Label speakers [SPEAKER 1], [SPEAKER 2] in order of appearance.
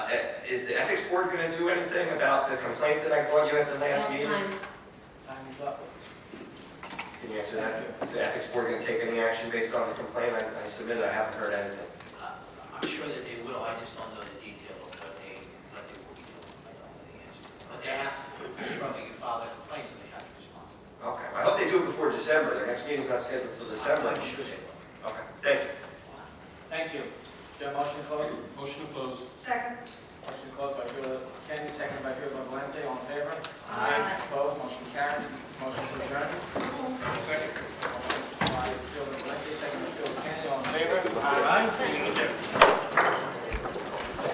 [SPEAKER 1] Uh, is the ethics board going to do anything about the complaint that I brought you at the last
[SPEAKER 2] Last
[SPEAKER 1] meeting?
[SPEAKER 2] time,
[SPEAKER 3] Time is up.
[SPEAKER 1] Can you answer that? Is the ethics board going to take any action based on the complaint I I submitted? I haven't heard anything.
[SPEAKER 3] Uh, I'm sure that they will, I just don't know the detail of what they, what they will be doing, I don't know the answer. But they have to, they're struggling to file their complaints, and they have to respond.
[SPEAKER 1] Okay, I hope they do it before December, their next meeting's not scheduled until December.
[SPEAKER 3] I'm sure they will.
[SPEAKER 1] Okay, thank you.
[SPEAKER 4] Thank you. Is there a motion to close?
[SPEAKER 5] Motion to close.
[SPEAKER 2] second.
[SPEAKER 4] Motion to close by Bueller Kenny, second by Bueller Valente, all in favor?
[SPEAKER 2] Aye.
[SPEAKER 4] Opposed?